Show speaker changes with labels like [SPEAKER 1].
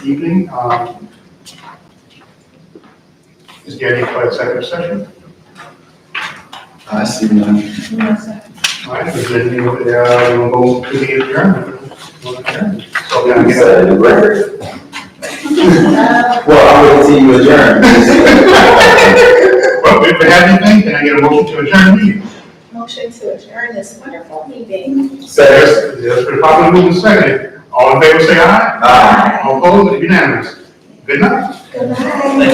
[SPEAKER 1] evening. Um, Is there any for executive session?
[SPEAKER 2] I see none.
[SPEAKER 1] All right, if there's any, uh, we'll go to the adjournment. So, yeah,
[SPEAKER 2] You
[SPEAKER 1] yeah.
[SPEAKER 2] said the record. Well, I'm waiting till you adjourn.
[SPEAKER 1] Well, if we have anything, can I get a motion to adjourn the meeting?
[SPEAKER 3] Motion to adjourn this wonderful meeting.
[SPEAKER 2] Second.
[SPEAKER 1] Yes, yes, we're probably moving second. All in favor, say aye.
[SPEAKER 2] Aye.
[SPEAKER 1] All opposed, unanimous. Good night.
[SPEAKER 3] Goodbye.